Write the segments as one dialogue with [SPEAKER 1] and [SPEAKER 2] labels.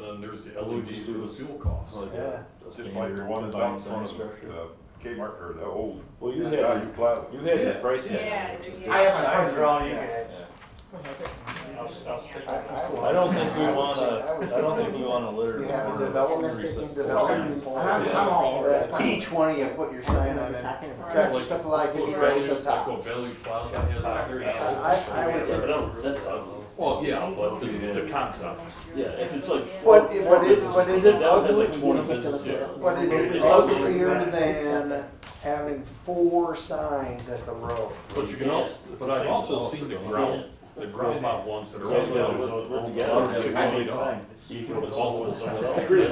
[SPEAKER 1] just the
[SPEAKER 2] We'll
[SPEAKER 1] LED
[SPEAKER 2] just
[SPEAKER 1] for
[SPEAKER 2] do
[SPEAKER 1] the
[SPEAKER 2] this.
[SPEAKER 1] fuel cost.
[SPEAKER 2] Like
[SPEAKER 3] Yeah.
[SPEAKER 2] a- a
[SPEAKER 4] Just like
[SPEAKER 2] standard
[SPEAKER 4] the one that's
[SPEAKER 2] line
[SPEAKER 4] out in front of the
[SPEAKER 2] structure.
[SPEAKER 4] uh, Kmart or the old
[SPEAKER 2] Well, you
[SPEAKER 4] Value
[SPEAKER 2] had,
[SPEAKER 4] Plaza.
[SPEAKER 2] you had the
[SPEAKER 1] Yeah.
[SPEAKER 2] price. tag,
[SPEAKER 5] Yeah,
[SPEAKER 2] which is
[SPEAKER 5] yeah.
[SPEAKER 2] different.
[SPEAKER 6] I have my price wrong, you
[SPEAKER 4] Yeah.
[SPEAKER 6] guys.
[SPEAKER 1] I'll, I'll stick with
[SPEAKER 3] I-
[SPEAKER 1] this
[SPEAKER 3] I
[SPEAKER 1] one.
[SPEAKER 2] I don't think we
[SPEAKER 3] would
[SPEAKER 2] wanna,
[SPEAKER 3] say- I would
[SPEAKER 2] I don't think
[SPEAKER 3] say
[SPEAKER 2] we wanna litter.
[SPEAKER 3] You have a
[SPEAKER 2] or
[SPEAKER 3] development-
[SPEAKER 2] increase it.
[SPEAKER 3] development
[SPEAKER 2] Yeah.
[SPEAKER 3] plan.
[SPEAKER 2] Yeah.
[SPEAKER 3] That P twenty, you put your sign on it, tractor
[SPEAKER 1] Like-
[SPEAKER 3] supply could be
[SPEAKER 1] Like
[SPEAKER 3] right at
[SPEAKER 1] Bellevue-
[SPEAKER 3] the top.
[SPEAKER 1] Like what Bellevue Plaza has out there.
[SPEAKER 3] I- I- I would-
[SPEAKER 2] Yeah, but that- that's ugly.
[SPEAKER 1] Well, yeah, but the, the concept.
[SPEAKER 2] Yeah, if it's like. four-
[SPEAKER 3] But,
[SPEAKER 2] four
[SPEAKER 3] but is,
[SPEAKER 2] businesses,
[SPEAKER 3] but is it
[SPEAKER 2] that has
[SPEAKER 3] ugly,
[SPEAKER 2] like 20 businesses, yeah.
[SPEAKER 3] but is it
[SPEAKER 2] It's ugly.
[SPEAKER 3] uglier than having four signs at the road?
[SPEAKER 1] But you can also, but I've also seen the ground, the ground mount ones that are.
[SPEAKER 2] Right, yeah, we're-
[SPEAKER 1] all-
[SPEAKER 2] we're
[SPEAKER 1] all-
[SPEAKER 2] together.
[SPEAKER 1] all-
[SPEAKER 2] Should
[SPEAKER 1] all-
[SPEAKER 2] be
[SPEAKER 1] all-
[SPEAKER 2] fine.
[SPEAKER 1] You can put all of them somewhere else.
[SPEAKER 2] Agree.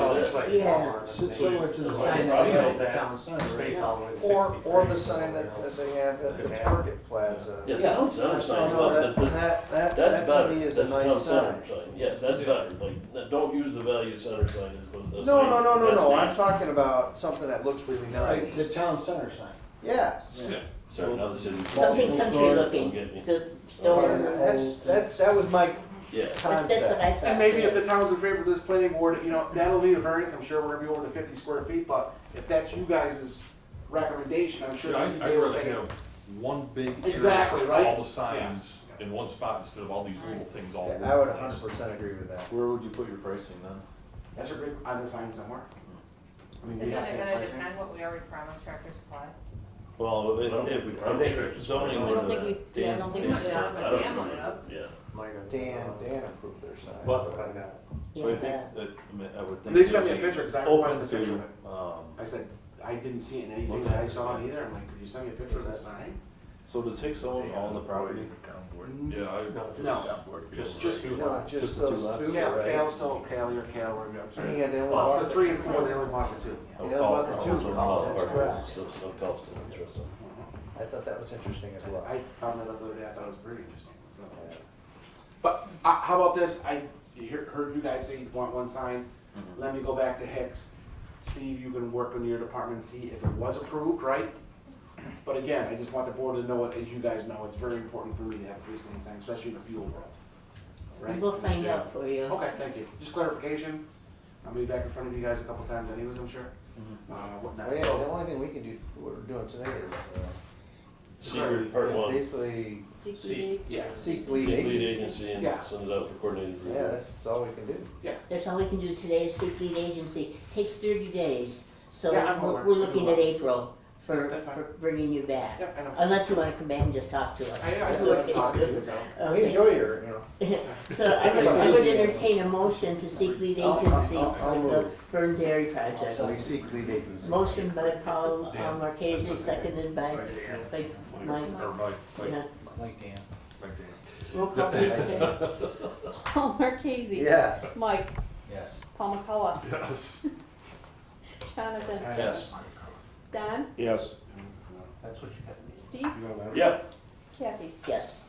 [SPEAKER 6] Yeah.
[SPEAKER 7] Similar to the sign that we have at the town center.
[SPEAKER 3] Or, or the sign that, that they have at the Target Plaza.
[SPEAKER 2] Yeah, the town center sign's
[SPEAKER 3] No,
[SPEAKER 2] up,
[SPEAKER 3] that,
[SPEAKER 2] but
[SPEAKER 3] that, that,
[SPEAKER 2] that's
[SPEAKER 3] that
[SPEAKER 2] better,
[SPEAKER 3] to me
[SPEAKER 2] that's
[SPEAKER 3] is a
[SPEAKER 2] the town
[SPEAKER 3] nice
[SPEAKER 2] center
[SPEAKER 3] sign.
[SPEAKER 2] sign, yes, that's better, like, that- don't use the value center sign as the. the
[SPEAKER 3] No,
[SPEAKER 2] sign.
[SPEAKER 3] no, no, no,
[SPEAKER 2] That's
[SPEAKER 3] no, I'm
[SPEAKER 2] nasty.
[SPEAKER 3] talking about something that looks really
[SPEAKER 7] Right, The
[SPEAKER 3] nice.
[SPEAKER 7] town center sign.
[SPEAKER 3] Yes.
[SPEAKER 2] Sorry, now the city.
[SPEAKER 8] Something country
[SPEAKER 2] Don't
[SPEAKER 8] looking,
[SPEAKER 2] get me.
[SPEAKER 8] the
[SPEAKER 3] But
[SPEAKER 8] store,
[SPEAKER 3] That's, that, that was my
[SPEAKER 2] Yeah,
[SPEAKER 8] but that's what
[SPEAKER 3] concept.
[SPEAKER 8] I thought.
[SPEAKER 6] And maybe if the town's in favor of this planning board, you know, that'll need a variance, I'm sure we're gonna be over the fifty square feet, but if that's you guys' recommendation, I'm sure.
[SPEAKER 1] Dude, I,
[SPEAKER 6] this would be
[SPEAKER 1] I'd
[SPEAKER 6] able to
[SPEAKER 1] rather
[SPEAKER 6] say-
[SPEAKER 1] have one big area
[SPEAKER 6] Exactly,
[SPEAKER 1] for
[SPEAKER 6] right?
[SPEAKER 1] all the signs
[SPEAKER 6] Yes.
[SPEAKER 1] in one spot instead of all these little things all over.
[SPEAKER 3] I would
[SPEAKER 1] the place.
[SPEAKER 3] hundred percent agree with that.
[SPEAKER 2] where would you put your pricing then?
[SPEAKER 6] That's a great, on the sign somewhere. I mean, we
[SPEAKER 5] Isn't
[SPEAKER 6] have to
[SPEAKER 5] it
[SPEAKER 6] have
[SPEAKER 5] gonna
[SPEAKER 6] pricing.
[SPEAKER 5] depend what we already promised Tractor Supply?
[SPEAKER 2] Well, I don't think we, I think zoning.
[SPEAKER 8] I don't think we-
[SPEAKER 2] would, uh,
[SPEAKER 8] yeah, I don't think
[SPEAKER 2] dance-
[SPEAKER 8] we did.
[SPEAKER 2] dance- I don't think we did, Yeah.
[SPEAKER 3] Dan, Dan approved their sign.
[SPEAKER 2] What?
[SPEAKER 3] but-
[SPEAKER 8] Yeah,
[SPEAKER 2] But I
[SPEAKER 8] the-
[SPEAKER 2] think that, I mean, I would think.
[SPEAKER 6] They sent me a
[SPEAKER 2] it'd be
[SPEAKER 6] picture, cause I
[SPEAKER 2] Open
[SPEAKER 6] requested a picture of it.
[SPEAKER 2] to, um,
[SPEAKER 6] I said, I didn't see it in anything that I saw it either, I'm like, could you send me a picture of the sign?
[SPEAKER 2] so does Hicks own all the property?
[SPEAKER 4] Town board.
[SPEAKER 1] Yeah, I,
[SPEAKER 6] No,
[SPEAKER 1] just,
[SPEAKER 6] just-
[SPEAKER 1] just two lines.
[SPEAKER 3] No, just
[SPEAKER 2] Just the two
[SPEAKER 3] those
[SPEAKER 2] left.
[SPEAKER 3] two,
[SPEAKER 6] Cal,
[SPEAKER 3] right?
[SPEAKER 6] Cal, no, Cal, or Cal, or, I'm sorry.
[SPEAKER 3] Yeah, they only
[SPEAKER 2] Well,
[SPEAKER 3] bought
[SPEAKER 6] The three and four, they only bought the two.
[SPEAKER 3] Yeah, about the two. That's correct. I thought that was interesting as well.
[SPEAKER 6] I found that out the other day, I thought it was pretty interesting, so. But, uh, how about this, I hear- heard you guys say you want one sign,
[SPEAKER 3] Mm-hmm.
[SPEAKER 6] let me go back to Hicks. Steve, you can work on your department and see if it was approved, right? But again, I just want the board to know it, as you guys know, it's very important for me to have a freestanding sign, especially in the fuel world. Right?
[SPEAKER 8] We'll find
[SPEAKER 6] Yeah.
[SPEAKER 8] out for you.
[SPEAKER 6] Okay, thank you. Just clarification. I'll be back in front of you guys a couple times anyways, I'm sure.
[SPEAKER 3] Mm-hmm.
[SPEAKER 6] Uh,
[SPEAKER 3] Well,
[SPEAKER 6] whatnot.
[SPEAKER 3] yeah, the
[SPEAKER 6] So,
[SPEAKER 3] only thing we can do, what we're doing today is,
[SPEAKER 2] Secret
[SPEAKER 3] uh,
[SPEAKER 2] part one,
[SPEAKER 3] basically
[SPEAKER 8] CPD,
[SPEAKER 6] yeah,
[SPEAKER 3] seek
[SPEAKER 2] lead
[SPEAKER 3] lead agency.
[SPEAKER 2] agency and
[SPEAKER 6] Yeah.
[SPEAKER 2] sends out for coordinated
[SPEAKER 3] Yeah,
[SPEAKER 2] review.
[SPEAKER 3] that's, that's all we can do.
[SPEAKER 8] that's all we can do today is seek lead agency, takes thirty days. So
[SPEAKER 6] Yeah, I'm
[SPEAKER 8] we're,
[SPEAKER 6] aware.
[SPEAKER 8] we're looking at April for,
[SPEAKER 6] That's fine.
[SPEAKER 8] for bringing you back.
[SPEAKER 6] yeah, I know.
[SPEAKER 8] Unless you wanna come back and just talk to us.
[SPEAKER 6] I, I
[SPEAKER 8] That's
[SPEAKER 6] still like to
[SPEAKER 8] okay.
[SPEAKER 6] talk to you, so.
[SPEAKER 3] We
[SPEAKER 8] Okay,
[SPEAKER 3] enjoy your, you know,
[SPEAKER 8] so I would, I would entertain a motion to seek lead
[SPEAKER 3] I'll- I'll-
[SPEAKER 8] agency
[SPEAKER 3] I'll- I'll
[SPEAKER 8] for the
[SPEAKER 3] move.
[SPEAKER 8] Burn Dairy Project.
[SPEAKER 3] so we seek lead agency.
[SPEAKER 8] Motion by Paul uh, Marquesi, seconded by, by Mike.
[SPEAKER 1] Or by, by-
[SPEAKER 8] Yeah.
[SPEAKER 7] Like Dan.
[SPEAKER 1] by Dan.
[SPEAKER 8] Roll call please, Kay.
[SPEAKER 9] Paul Marquesi.
[SPEAKER 3] Yes.
[SPEAKER 9] Mike,
[SPEAKER 7] Yes.
[SPEAKER 9] Paul McCullough,
[SPEAKER 1] Yes.
[SPEAKER 9] Jonathan,
[SPEAKER 2] Yes.
[SPEAKER 9] Don,
[SPEAKER 2] Yes.
[SPEAKER 7] That's what you got.
[SPEAKER 9] Steve,
[SPEAKER 6] You know that.
[SPEAKER 2] Yeah,
[SPEAKER 9] Kathy.
[SPEAKER 8] Yes.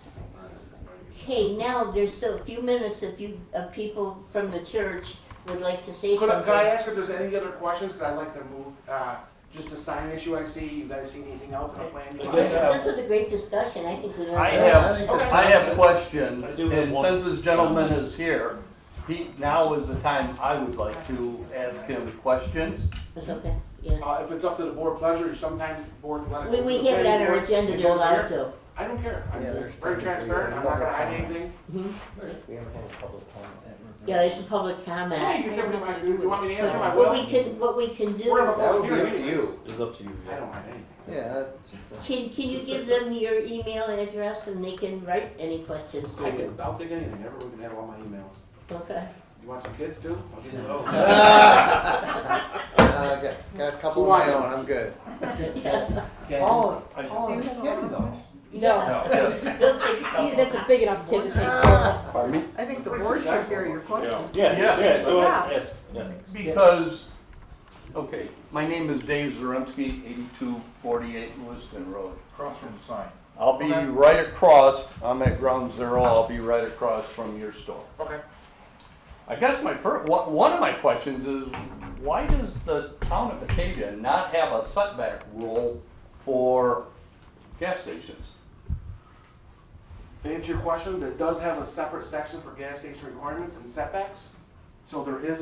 [SPEAKER 8] Okay, now there's still a few minutes if you, uh, people from the church would like to say
[SPEAKER 6] Could I, could I
[SPEAKER 8] something.
[SPEAKER 6] ask if there's any other questions, cause I'd like to move, uh, just a sign issue I see, you guys see anything else on the plan?
[SPEAKER 2] I
[SPEAKER 8] This,
[SPEAKER 2] guess-
[SPEAKER 8] this was a great discussion, I think we learned.
[SPEAKER 10] I
[SPEAKER 8] a
[SPEAKER 3] Yeah,
[SPEAKER 8] lot.
[SPEAKER 10] have-
[SPEAKER 3] think that's
[SPEAKER 10] I have
[SPEAKER 3] awesome.
[SPEAKER 10] questions,
[SPEAKER 2] I do have
[SPEAKER 10] and
[SPEAKER 2] one.
[SPEAKER 10] since this gentleman is here, he, now is the time I would like to ask him questions.
[SPEAKER 8] It's okay, yeah.
[SPEAKER 6] Uh, if it's up to the board pleasure, sometimes the board let it.
[SPEAKER 8] We,
[SPEAKER 6] go
[SPEAKER 8] we
[SPEAKER 6] to the
[SPEAKER 8] have it on
[SPEAKER 6] planning
[SPEAKER 8] our
[SPEAKER 6] board,
[SPEAKER 8] agenda,
[SPEAKER 6] it
[SPEAKER 8] they're
[SPEAKER 6] goes there.
[SPEAKER 8] allowed to.
[SPEAKER 6] I don't care, I'm
[SPEAKER 3] Yeah, there's
[SPEAKER 6] very
[SPEAKER 3] technically-
[SPEAKER 6] transparent, I'm not gonna hide anything.
[SPEAKER 8] Mhm.
[SPEAKER 3] We haven't had a public comment.
[SPEAKER 8] Yeah, it's a public comment.
[SPEAKER 6] Yeah, you can send me my, if you want me to
[SPEAKER 8] So,
[SPEAKER 6] answer my
[SPEAKER 8] What we
[SPEAKER 6] will,
[SPEAKER 8] can, what we can do,
[SPEAKER 6] We're about-
[SPEAKER 3] That would be up to you.
[SPEAKER 2] it's up to you.
[SPEAKER 6] I don't hide anything.
[SPEAKER 3] Yeah. that's-
[SPEAKER 8] can, can you give them your email address and they can write any questions to
[SPEAKER 6] I
[SPEAKER 8] you?
[SPEAKER 6] can, I'll take anything, everyone can have all my emails.
[SPEAKER 8] Okay.
[SPEAKER 6] You want some kids too? I'll give you those.
[SPEAKER 3] Ah! Uh, I got, got a couple of my own, I'm good. Paul, Paul, I'm kidding though.
[SPEAKER 9] No,
[SPEAKER 1] No, yes.
[SPEAKER 8] They'll take a
[SPEAKER 9] he-
[SPEAKER 8] couple.
[SPEAKER 9] that's a big enough kid to take care of.
[SPEAKER 3] Ah,
[SPEAKER 10] Pardon me?
[SPEAKER 11] I think the
[SPEAKER 6] Pretty
[SPEAKER 11] board should
[SPEAKER 6] successful.
[SPEAKER 11] hear your question.
[SPEAKER 2] Yeah, yeah, yeah, go ahead, yes, yeah.
[SPEAKER 10] Because, okay, my name is Dave Zaremski, eighty-two forty-eight Lewiston Road.
[SPEAKER 4] Across from the sign.
[SPEAKER 10] I'll be right across, I'm at ground zero, I'll be right across from your store.
[SPEAKER 6] Okay.
[SPEAKER 10] I guess my fir, one one of my questions is, why does the town of Batavia not have a setback rule for gas stations?
[SPEAKER 6] To answer your question, that does have a separate section for gas station requirements and setbacks. So there is